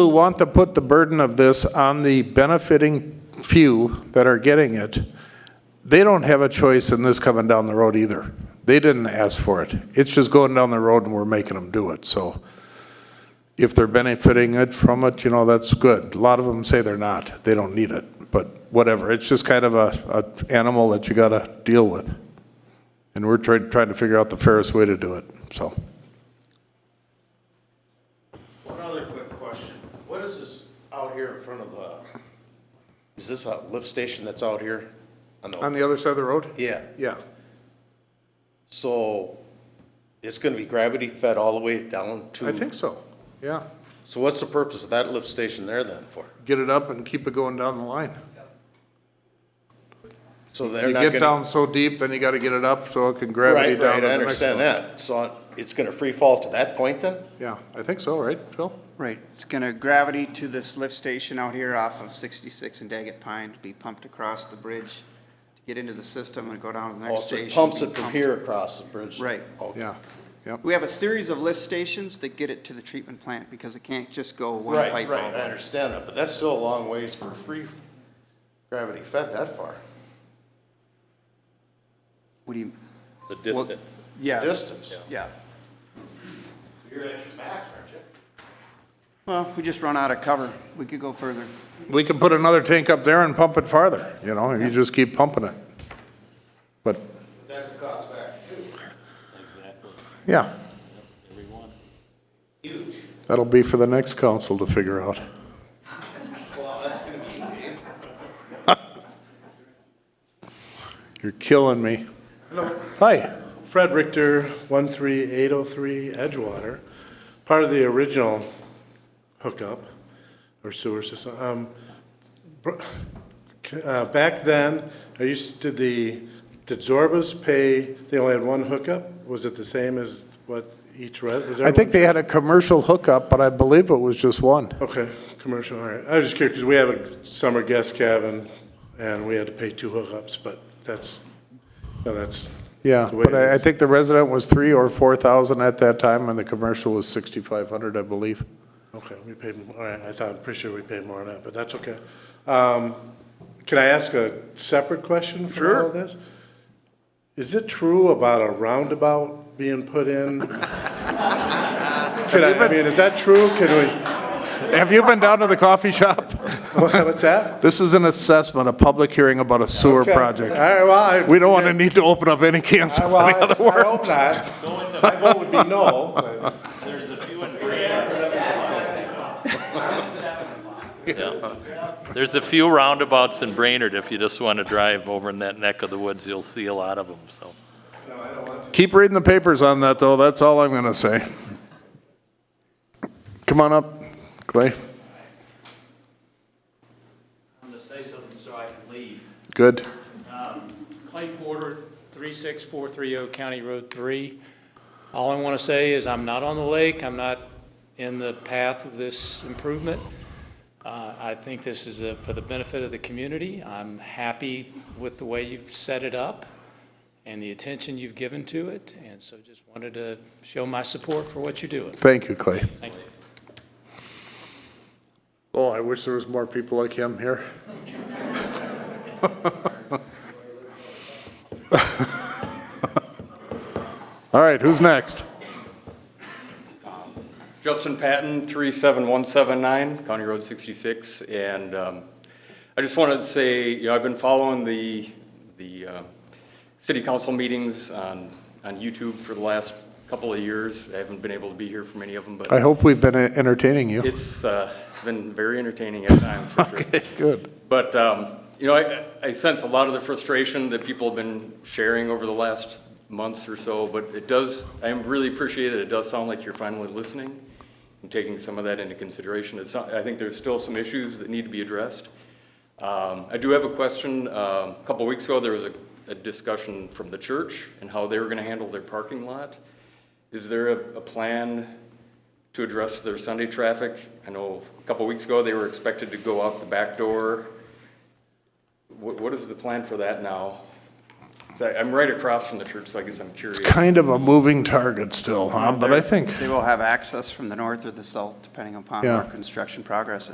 who want to put the burden of this on the benefiting few that are getting it, they don't have a choice in this coming down the road either. They didn't ask for it. It's just going down the road and we're making them do it, so. If they're benefiting it from it, you know, that's good. A lot of them say they're not, they don't need it, but whatever. It's just kind of a, a animal that you gotta deal with. And we're trying, trying to figure out the fairest way to do it, so. One other quick question. What is this out here in front of the, is this a lift station that's out here? On On the, the other side of the road? yeah, Yeah. so it's gonna be gravity fed all the way down to? I think so, yeah. So what's the purpose of that lift station there then for? get it up and keep it going down the line. So they're You not get gonna? down so deep, then you gotta get it up so it can gravity Right, down right, to I the next understand one. that. So it's gonna free fall to that point then? Yeah, I think so, right, Phil? Right, it's going to gravity to this lift station out here off of 66 and Daggett Pine, to be pumped across the bridge, to get into the system and go down to the Oh, next so station. it pumps be it from pumped. here across the bridge? Right. Okay. Yeah, yep. We have a series of lift stations that get it to the treatment plant because it can't just go one Right, pipe all right, the I way. understand that, but that's still a long ways for free gravity fed that far. What do you, The Well- distance. yeah, Distance. yeah. You're at your max, aren't you? Well, we just run out of cover. We could go further. We can put another tank up there and pump it farther, you know, and you just keep pumping it. But, That's a cost factor too, Exactly, yeah, everyone. huge. that'll be for the next council to figure out. Well, that's gonna be huge. You're killing me. Hi, Fred Richter, 13803 Edgewater, part of the original hookup or sewer system. Um, br- c- uh, Back then, I used to, the, did Zorbas pay, they only had one hookup? Was it the same as what each res? was I think everyone- they had a commercial hookup, but I believe it was just one. Okay, commercial, all right. I was just curious, because we have a summer guest cabin, and we had to pay two hookups, but that's, no, that's. Yeah, the way but it I, I is. think the resident was three or four thousand at that time, and the commercial was sixty-five hundred, I believe. Okay, we paid, m- all right, I thought, I'm pretty sure we paid more on that, but that's okay. Um, Can I ask a separate question for all of this? Is it true about a roundabout being put in? Can I, I mean, is that true? Can Have you been down to the coffee shop? we, what's that? This is an assessment, a public hearing about a sewer Okay. All project. right, well, I. We don't want to need to open up any cans I- of well, I- any other I worm. hope not. My vote would be no, but- There's a few in Green. There's a few roundabouts in Brainerd, if you just want to drive over in that neck of the woods, you'll see a lot of them, so. Keep reading the papers on that, though, that's all I'm going to say. Come on up, Clay. I'm gonna say something so I can leave. Good. Clay Porter, 36430 County Road 3. All I want to say is I'm not on the lake, I'm not in the path of this improvement. Uh, I think this is a- for the benefit of the community. I'm happy with the way you've set it up and the attention you've given to it, and so just wanted to show my support for what you're doing. Thank you, Clay. Thank you. Oh, I wish there was more people like him here. All right, who's next? Justin Patton, 37179, County Road 66, and um, I just wanted to say, you know, I've been following the, the uh, city council meetings on, on YouTube for the last couple of years. I haven't been able to be here for many of them, I but hope we've been entertaining you. it's uh, been very entertaining at times, for sure. Good. But, um, you know, I, I sense a lot of the frustration that people have been sharing over the last months or so, but it does, I am really appreciate that it does sound like you're finally listening and taking some of that into consideration. It's, not- I think there's still some issues that need to be addressed. Um, I do have a question. Um, A couple weeks ago, there was a, a discussion from the church and how they were gonna handle their parking lot. Is there a, a plan to address their Sunday traffic? I know a couple weeks ago, they were expected to go out the back door. What, what is the plan for that now? So I- I'm right across from the church, so I guess I'm curious. Kind of a moving target still, huh? But I think. They will have access from the north or the south, depending upon Yeah. where construction progress